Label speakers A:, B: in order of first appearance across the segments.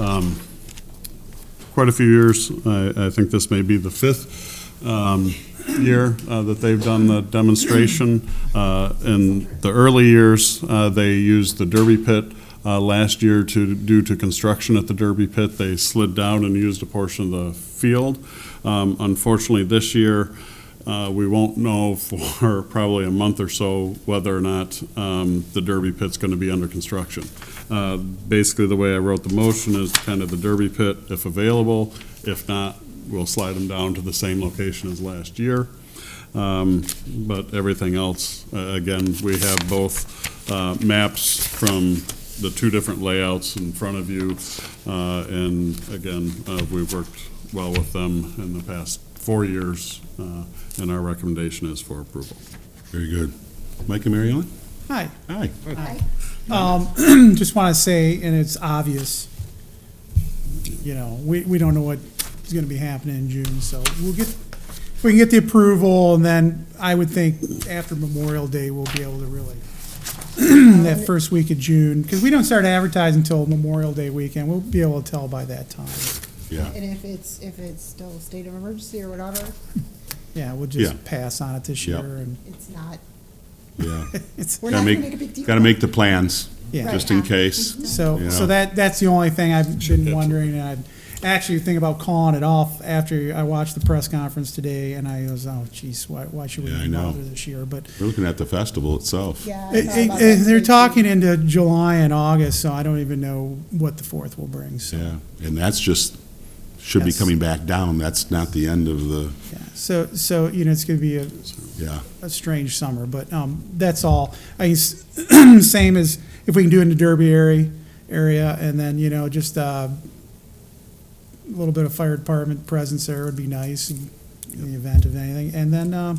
A: um, quite a few years. I, I think this may be the fifth um, year uh, that they've done the demonstration. Uh, In the early years, uh, they used the Derby Pit. Uh, Last year, to, due to construction at the Derby Pit, they slid down and used a portion of the field. Um, Unfortunately, this year, uh, we won't know for probably a month or so whether or not um, the Derby Pit's going to be under construction. Uh, Basically, the way I wrote the motion is kind of the Derby Pit, if available. If not, we'll slide them down to the same location as last year. Um, But everything else, uh, again, we have both uh, maps from the two different layouts in front of you. Uh, And again, uh, we've worked well with them in the past four years, uh, and our recommendation is for approval.
B: Very good. Mike and Mary Ellen?
C: Hi.
B: Aye.
C: Hmm, Um, Just want to say, and it's obvious, you know, we, we don't know what is going to be happening in June, so we'll get, if we can get the approval, and then I would think after Memorial Day, we'll be able to really,
D: Um,
C: that first week of June, because we don't start advertising until Memorial Day weekend, we'll be able to tell by that time.
B: Yeah,
D: And if it's, if it's still state of emergency or whatever,
C: Yeah, we'll
B: Yeah.
C: just pass on it this
B: Yeah.
C: year, and
D: it's not,
B: yeah.
C: it's,
D: we're not
B: Gotta
D: gonna make a big
B: make,
D: deal. Mm-hmm.
B: gotta make the plans,
C: yeah.
B: just in case.
C: So,
B: Yeah.
C: so that, that's the only thing I've been wondering, and I actually think about calling it off after I watched the press conference today, and I was, oh geez, why, why should we
B: Yeah, I
C: even
B: know.
C: bother this year? But
B: We're looking at the festival itself.
D: Yeah. I
C: it-
D: thought about
C: it- it-
D: that
C: Eh, they're
D: too.
C: talking into July and August, so I don't even know what the fourth will bring, so.
B: Yeah, and that's just, should be
C: Yes.
B: coming back down. That's not the end of the,
C: yeah. So, so, you know, it's gonna be a,
B: yeah,
C: a strange summer, but um, that's all. I guess, same as if we can do it in the Derby area, area, and then you know just uh, a little bit of fire department presence there would be nice in, in the event of anything. And then uh,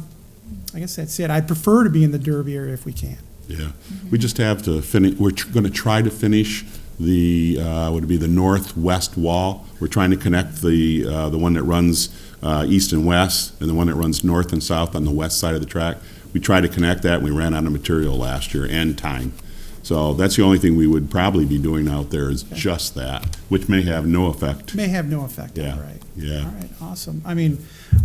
C: I guess that's it. I prefer to be in the Derby area if we can.
B: yeah. We just have to finish, we're tr- gonna try to finish the, uh, would it be the northwest wall? We're trying to connect the, uh, the one that runs, uh, east and west, and the one that runs north and south on the west side of the track. We tried to connect that, and we ran out of material last year and time. So that's the only thing we would probably be doing out there is just that, which may have no effect.
C: May have no effect.
B: Yeah,
C: All right.
B: yeah.
C: All right. Awesome. I mean,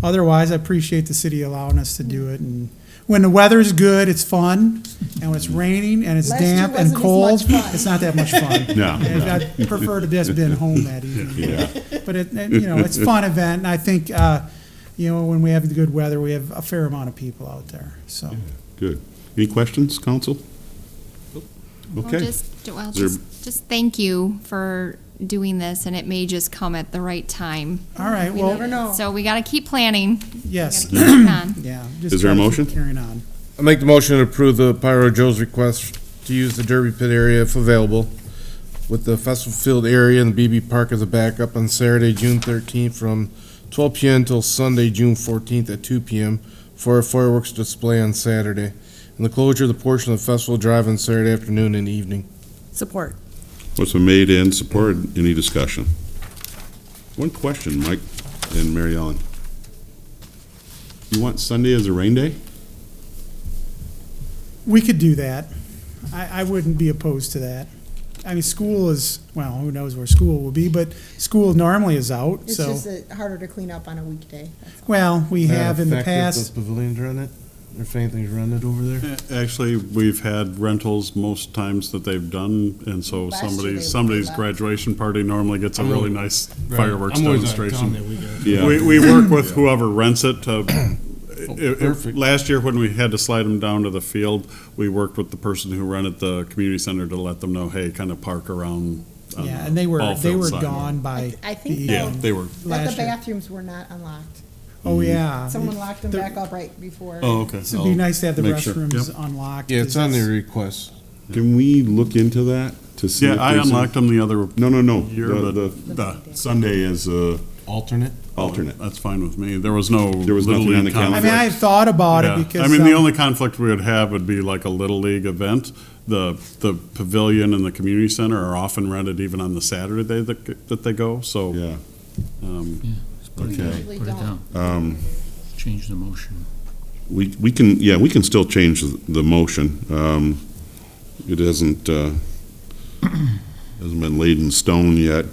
C: otherwise, I appreciate the city allowing us to do it. And when the weather's good, it's fun. And when it's raining and it's
D: Last year
C: damp and
D: wasn't as
C: cold,
D: much fun.
C: it's not that much fun.
B: No,
C: And
B: no.
C: I prefer to just been home that evening.
B: Yeah.
C: But it, it- you know, it's a fun event, and I think, uh, you know, when we have the good weather, we have a fair amount of people out there, so.
B: Good. Any questions, council?
E: Well,
B: Okay.
E: just, well,
B: there-
E: just, just thank you for doing this, and it may just come at the right time.
C: All right,
D: You never
C: well,
D: know.
E: So we gotta keep planning.
C: yes,
E: Gotta keep it on.
C: yeah. just
B: Is there a
C: gotta keep
B: motion?
C: Carrying on.
F: I make the motion to approve the Pyro Joe's request to use the Derby Pit area if available, with the Festival Field area and the BB Park as a backup on Saturday, June thirteenth, from twelve PM till Sunday, June fourteenth at two PM, for a fireworks display on Saturday, and the closure of the portion of Festival Drive on Saturday afternoon and evening.
G: Support.
B: What's been made and supported, any discussion? One question, Mike and Mary Ellen. You want Sunday as a rain day?
C: We could do that. I, I wouldn't be opposed to that. I mean, school is, well, who knows where school will be, but school normally is out,
D: It's
C: so.
D: just uh, harder to clean up on a weekday.
C: Well, we have in the
F: Does
C: past,
F: Pavilion's run it, or if anything's run it over there?
A: Uh, Actually, we've had rentals most times that they've done, and so
D: Last year
A: somebody,
D: they
A: somebody's
D: left.
A: graduation party normally gets a
H: I'm
A: really
H: always-
A: nice
H: Right.
A: fireworks
H: I'm always out of
A: demonstration.
H: town that weekend.
A: We, we work with whoever rents it to, if- if-
H: perfect.
A: last year when we had to slide them down to the field, we worked with the person who rented the community center to let them know, hey, kind of park around. on
C: yeah,
A: the
B: uh,
C: and they were,
A: ball
C: they
A: field
C: were
A: side.
C: gone by
D: I- I
C: the
D: think
A: Yeah,
C: evening
A: they were.
D: But the
C: last year.
D: bathrooms were not unlocked.
C: Oh, yeah.
D: Someone locked them
C: The-
D: back up right before.
A: Oh, okay.
C: It'd be nice to have the
A: Make sure.
C: restrooms
A: Yep.
C: unlocked.
F: Yeah, it's on
C: because
F: their request.
B: Can we look into that to see?
A: Yeah,
B: if
A: I
B: there's a-
A: unlocked them the other
B: No, no, no.
A: year,
B: The-
A: but
B: the
A: the
B: Sunday as a
F: Alternate?
B: alternate.
A: That's fine with me. There was no.
B: There was
A: Little
B: nothing on
A: League
B: the
A: conflict.
C: I mean, I had thought about
A: Yeah.
C: it because.
A: I mean, the
C: um,
A: only conflict we would have would be like a Little League event. The, the pavilion and the community center are often rented even on the Saturday day that, that they go, so.
B: Yeah,
A: um,
H: Put it
B: Okay.
H: down,
D: Usually
H: Put it
D: don't.
H: down.
B: um.
H: Change the motion.
B: We, we can, yeah, we can still change the the motion. Um, It hasn't, uh, hasn't been laid in stone yet.